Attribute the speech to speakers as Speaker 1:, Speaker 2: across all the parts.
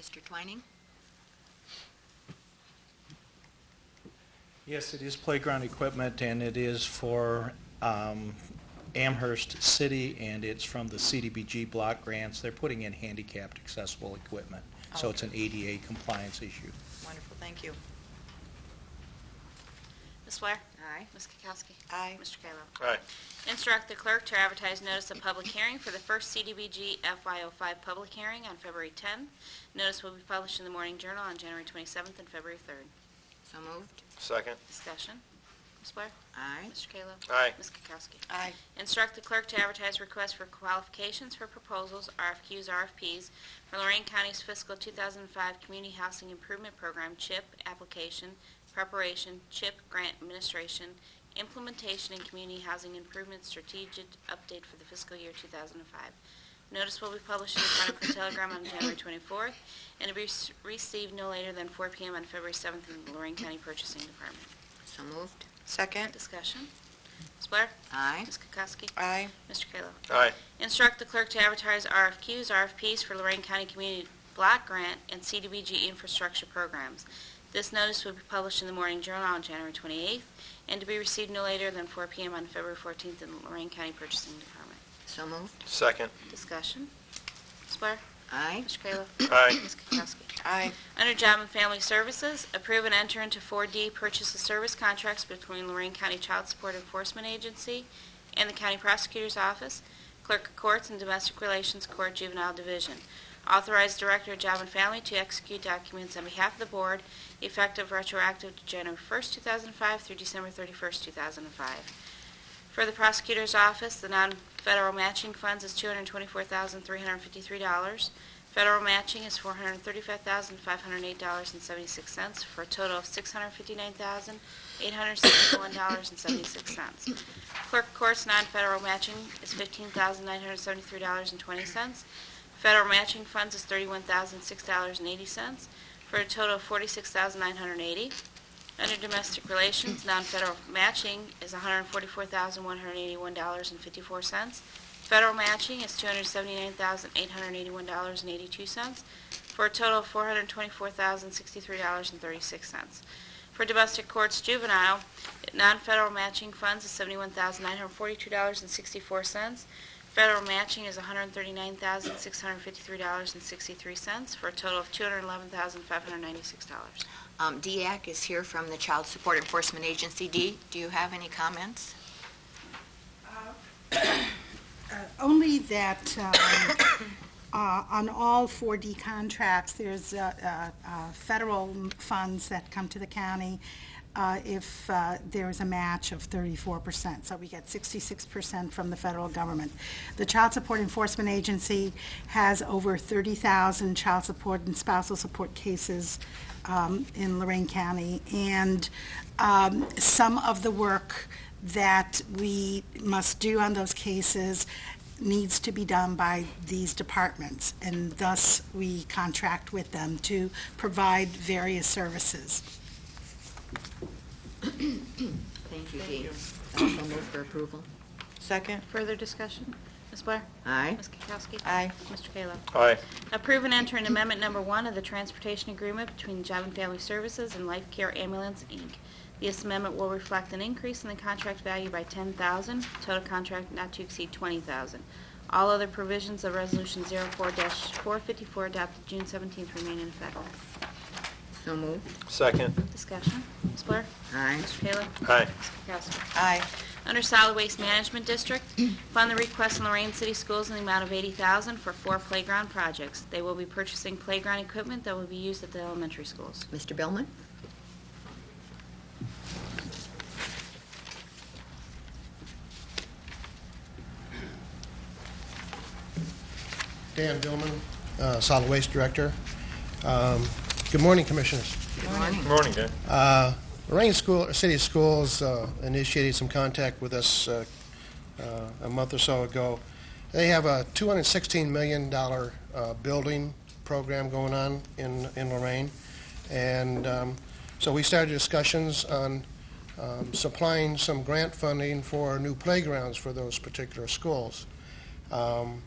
Speaker 1: Mr. Twining?
Speaker 2: Yes, it is playground equipment, and it is for um, Amherst City, and it's from the CDBG block grants. They're putting in handicapped accessible equipment, so it's an ADA compliance issue.
Speaker 1: Wonderful, thank you.
Speaker 3: Ms. Blair?
Speaker 1: Aye.
Speaker 3: Ms. Kukowski?
Speaker 1: Aye.
Speaker 3: Mr. Kayla?
Speaker 4: Aye.
Speaker 3: Instruct the clerk to advertise notice of public hearing for the first CDBG FY05 public hearing on February 10th. Notice will be published in the Morning Journal on January 27th and February 3rd.
Speaker 1: So moved.
Speaker 4: Second.
Speaker 3: Discussion. Ms. Blair?
Speaker 1: Aye.
Speaker 3: Mr. Kayla?
Speaker 4: Aye.
Speaker 3: Ms. Kukowski?
Speaker 1: Aye.
Speaker 3: Instruct the clerk to advertise requests for qualifications for proposals, RFQs, RFPs for Lorraine County's fiscal 2005 Community Housing Improvement Program, CHIP, application, preparation, CHIP grant administration, implementation, and community housing improvement strategic update for the fiscal year 2005. Notice will be published in the Chronicle Telegram on January 24th and be s- received no later than 4 p.m. on February 7th in the Lorraine County Purchasing Department.
Speaker 1: So moved. Second.
Speaker 3: Discussion. Ms. Blair?
Speaker 1: Aye.
Speaker 3: Ms. Kukowski?
Speaker 1: Aye.
Speaker 3: Mr. Kayla?
Speaker 4: Aye.
Speaker 3: Instruct the clerk to advertise RFQs, RFPs for Lorraine County Community Block Grant and CDBG infrastructure programs. This notice will be published in the Morning Journal on January 28th and to be received no later than 4 p.m. on February 14th in the Lorraine County Purchasing Department.
Speaker 1: So moved.
Speaker 4: Second.
Speaker 3: Discussion. Ms. Blair?
Speaker 1: Aye.
Speaker 3: Mr. Kayla?
Speaker 4: Aye.
Speaker 3: Ms. Kukowski?
Speaker 1: Aye.
Speaker 3: Under Job and Family Services, approve and enter into 4D purchase of service contracts between Lorraine County Child Support Enforcement Agency and the County Prosecutor's Office, Clerk of Courts, and Domestic Relations Court Juvenile Division. Authorize Director of Job and Family to execute documents on behalf of the Board, effective retroactive to January 1st, 2005 through December 31st, 2005. For the Prosecutor's Office, the non-federal matching funds is $224,353. Federal matching is $435,508.76 for a total of $659,861.76. Clerk of Court's non-federal matching is $15,973.20. Federal matching funds is $31,006.80 for a total of $46,980. Under Domestic Relations, non-federal matching is $144,181.54. Federal matching is $279,881.82, for a total of $424,063.36. For domestic courts juvenile, non-federal matching funds is $71,942.64. Federal matching is $139,653.63, for a total of $211,596.
Speaker 1: Um, DEAC is here from the Child Support Enforcement Agency. Dee, do you have any comments?
Speaker 5: Only that um, uh, on all 4D contracts, there's uh, uh, uh, federal funds that come to the county uh, if uh, there is a match of 34%. So we get 66% from the federal government. The Child Support Enforcement Agency has over 30,000 child support and spousal support cases um, in Lorraine County, and um, some of the work that we must do on those cases needs to be done by these departments, and thus we contract with them to provide various services.
Speaker 1: Thank you, Dee. So moved for approval. Second.
Speaker 3: Further discussion? Ms. Blair?
Speaker 1: Aye.
Speaker 3: Ms. Kukowski?
Speaker 1: Aye.
Speaker 3: Mr. Kayla?
Speaker 4: Aye.
Speaker 3: Approve and enter an amendment number one of the transportation agreement between Job and Family Services and Life Care Ambulance, Inc. This amendment will reflect an increase in the contract value by $10,000, total contract not to exceed $20,000. All other provisions of Resolution 04-454 adopted June 17th remain in effect.
Speaker 1: So moved.
Speaker 4: Second.
Speaker 3: Discussion. Ms. Blair?
Speaker 1: Aye.
Speaker 3: Mr. Kayla?
Speaker 4: Aye.
Speaker 3: Ms. Kukowski?
Speaker 1: Aye.
Speaker 3: Under Solid Waste Management District, fund the request in Lorraine City Schools in the amount of 80000 for four playground projects. They will be purchasing playground equipment that will be used at the elementary schools.
Speaker 1: Mr. Billman?
Speaker 6: Dan Billman, uh, Solid Waste Director. Um, Good morning, Commissioners.
Speaker 1: Good morning.
Speaker 4: Morning, Dan.
Speaker 6: Uh, Lorraine School, City Schools uh, initiated some contact with us uh, uh, a month or so ago. They have a $216 million uh, building program going on in in Lorraine, and um, so we started discussions on um, supplying some grant funding for new playgrounds for those particular schools. Um,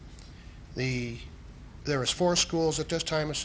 Speaker 6: The, there is four schools at this time in